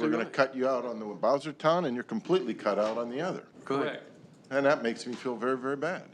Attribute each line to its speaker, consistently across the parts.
Speaker 1: We're gonna cut you out on the Bowser Town and you're completely cut out on the other.
Speaker 2: Correct.
Speaker 1: And that makes me feel very, very bad.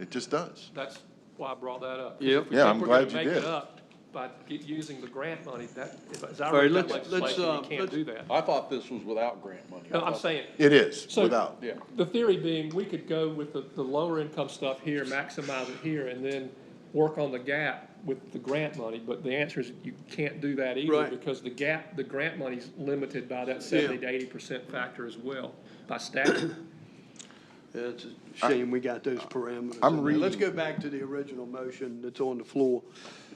Speaker 1: It just does.
Speaker 2: That's why I brought that up.
Speaker 3: Yep.
Speaker 2: If we
Speaker 1: Yeah,
Speaker 2: think
Speaker 1: I'm
Speaker 2: we're
Speaker 1: glad
Speaker 2: gonna
Speaker 1: you
Speaker 2: make it
Speaker 1: did.
Speaker 2: up By get- using the grant money, that, as I
Speaker 3: All right,
Speaker 2: read that
Speaker 3: let's, let's, uh,
Speaker 2: legislation, we can't
Speaker 3: let's-
Speaker 2: do that.
Speaker 4: I thought this was without grant money.
Speaker 2: No, I'm saying,
Speaker 1: It is,
Speaker 2: So-
Speaker 1: without.
Speaker 4: Yeah.
Speaker 2: the theory being, we could go with the, the lower income stuff here, maximize it here, and then work on the gap with the grant money, but the answer is you can't do that either
Speaker 3: Right.
Speaker 2: because the gap, the grant money's limited by that seventy to eighty percent factor as well, by statute.
Speaker 3: It's a shame we got those parameters.
Speaker 1: I'm
Speaker 3: in there. Let's
Speaker 1: reading-
Speaker 3: go back to the original motion that's on the floor,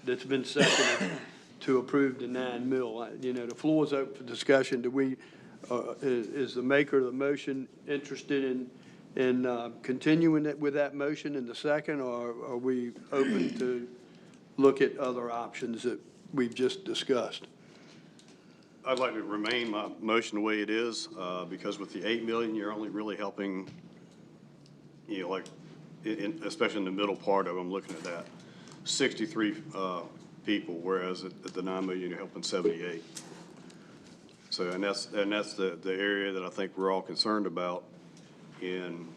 Speaker 3: that's been seconded to approve the nine mil. I- You know, the floor is open for discussion. Do we, uh, is, is the maker of the motion interested in, in uh, continuing it with that motion in the second? Or are we open to look at other options that we've just discussed?
Speaker 5: I'd like to remain my motion the way it is, uh, because with the eight million, you're only really helping, you know, like, in- in, especially in the middle part of, it, I'm looking at that, sixty-three, uh, people, whereas at, at the nine million, you're helping seventy-eight. So, and that's, and that's the, the area that I think we're all concerned about in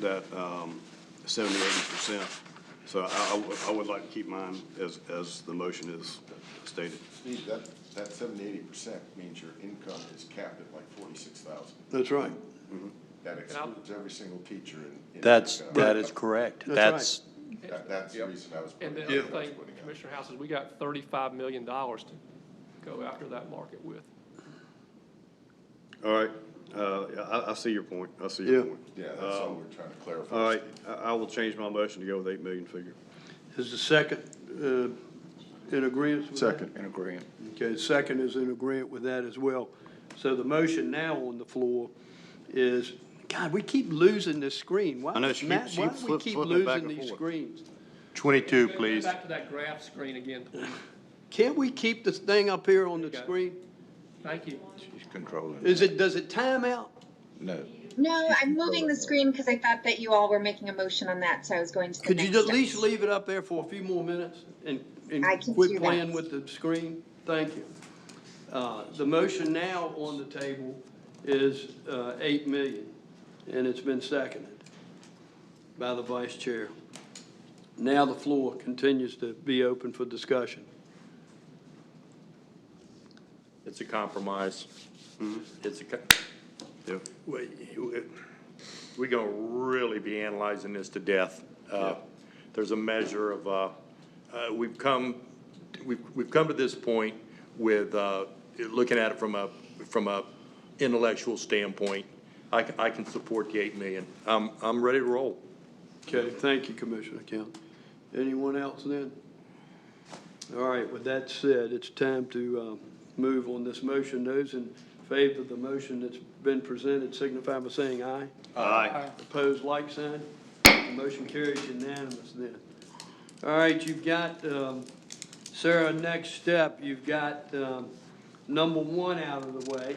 Speaker 5: that, um, seventy, eighty percent. So I, I would- I would like to keep mine as, as the motion is stated.
Speaker 1: Steve, that, that seventy, eighty percent means your income is capped at like forty-six thousand.
Speaker 3: That's right.
Speaker 1: That excludes every single teacher in. in
Speaker 6: That's,
Speaker 1: America.
Speaker 6: that is correct.
Speaker 3: That's
Speaker 6: That's,
Speaker 1: That- That's the reason I was
Speaker 2: And
Speaker 1: putting
Speaker 2: then
Speaker 1: out. what
Speaker 2: the other
Speaker 1: I was
Speaker 2: thing,
Speaker 1: putting out.
Speaker 2: Commissioner House, is we got thirty-five million dollars to go after that market with.
Speaker 5: All right, uh, yeah, I, I see your point, I see your
Speaker 3: Yeah.
Speaker 5: point.
Speaker 1: Yeah, that's all
Speaker 5: Um,
Speaker 1: we're trying to clarify.
Speaker 5: All right, I, I will change my motion to go with eight million figure.
Speaker 3: Is the second uh, in agreement with that?
Speaker 1: Second.
Speaker 4: In agreement.
Speaker 3: Okay, second is in agreement with that as well. So the motion now on the floor is, God, we keep losing this screen. Why,
Speaker 5: I know, she keep-
Speaker 3: Matt,
Speaker 5: she
Speaker 3: why
Speaker 5: keeps
Speaker 3: do we
Speaker 5: flip-
Speaker 3: keep
Speaker 5: flipping it back
Speaker 3: losing
Speaker 5: and
Speaker 3: these
Speaker 5: forth.
Speaker 3: screens?
Speaker 6: twenty-two,
Speaker 2: Go
Speaker 6: please.
Speaker 2: Back to that graph screen again, please.
Speaker 3: Can't we keep this thing up here on the
Speaker 2: Okay.
Speaker 3: screen?
Speaker 2: Thank you.
Speaker 4: He's controlling.
Speaker 3: Is it, does it time out?
Speaker 4: No.
Speaker 7: No, I'm moving the screen because I thought that you all were making a motion on that, so I was going to the
Speaker 3: Could
Speaker 7: next.
Speaker 3: you at least
Speaker 7: step.
Speaker 3: leave it up there for a few more minutes and, and
Speaker 7: I can do
Speaker 3: quit
Speaker 7: that.
Speaker 3: playing with the screen? Thank you. Uh, The motion now on the table is uh, eight million, and it's been seconded by the vice chair. Now the floor continues to be open for discussion.
Speaker 8: It's a compromise. It's a, co-
Speaker 5: Yep.
Speaker 8: we, we gonna really be analyzing this to death. Uh, There's a measure of, uh, uh, we've come, we've, we've come to this point with, uh, looking at it from a, from a intellectual standpoint. I can, I can support the eight million. I'm, I'm ready to roll.
Speaker 3: Okay, thank you, Commissioner Kent. Anyone else then? All right, with that said, it's time to uh, move on this motion. Those in favor of the motion that's been presented signify by saying aye.
Speaker 5: Aye.
Speaker 3: Opposed, like sign. The Motion carries unanimous then. All right, you've got, um, Sarah, next step, you've got um, number one out of the way.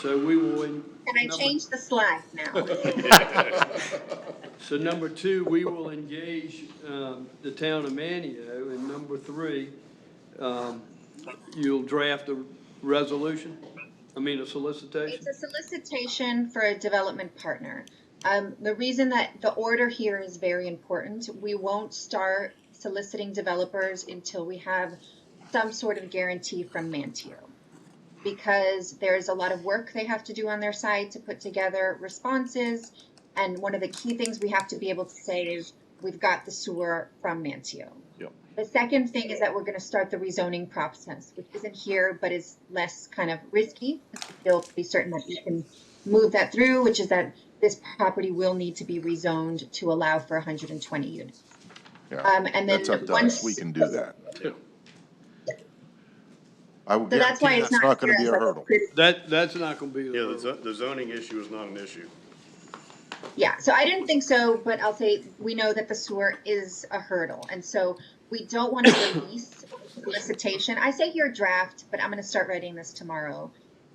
Speaker 3: So we will, en-
Speaker 7: Can I change the slide now?
Speaker 3: so number two, we will engage um, the town of Manio. And number three, um, you'll draft a resolution, I mean, a solicitation.
Speaker 7: It's a solicitation for a development partner. Um, the reason that the order here is very important, we won't start soliciting developers until we have some sort of guarantee from Mantio. Because there's a lot of work they have to do on their side to put together responses. And one of the key things we have to be able to say is, we've got the sewer from Mantio. The second thing is that we're gonna start the rezoning process, which isn't here, but is less kind of risky. Feel pretty certain that we can move that through, which is that this property will need to be rezoned to allow for hundred and twenty units. Um, and then
Speaker 1: That's up to us,
Speaker 7: once-
Speaker 1: we can do that. I would
Speaker 7: So that's why
Speaker 1: guarantee
Speaker 7: it's
Speaker 1: that's
Speaker 7: not
Speaker 1: not
Speaker 7: here
Speaker 1: gonna be
Speaker 7: as
Speaker 1: a
Speaker 7: like a
Speaker 1: hurdle.
Speaker 7: critical
Speaker 3: That, that's not going to be. the
Speaker 5: Yeah, the,
Speaker 3: vote.
Speaker 5: zo- the zoning issue is not an issue.
Speaker 7: Yeah, so I didn't think so, but I'll say we know that the sewer is a hurdle, and so we don't want to release solicitation. I say your draft, but I'm going to start writing this tomorrow.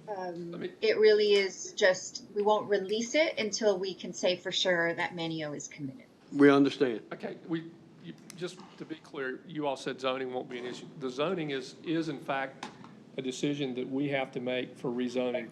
Speaker 7: Um,
Speaker 2: me-
Speaker 7: it really is just we won't release it until we can say for sure that Manio is committed.
Speaker 3: We understand.
Speaker 2: Okay, we, you- just to be clear, you all said zoning won't be an issue. The zoning is, is in fact a decision that we have to make for rezoning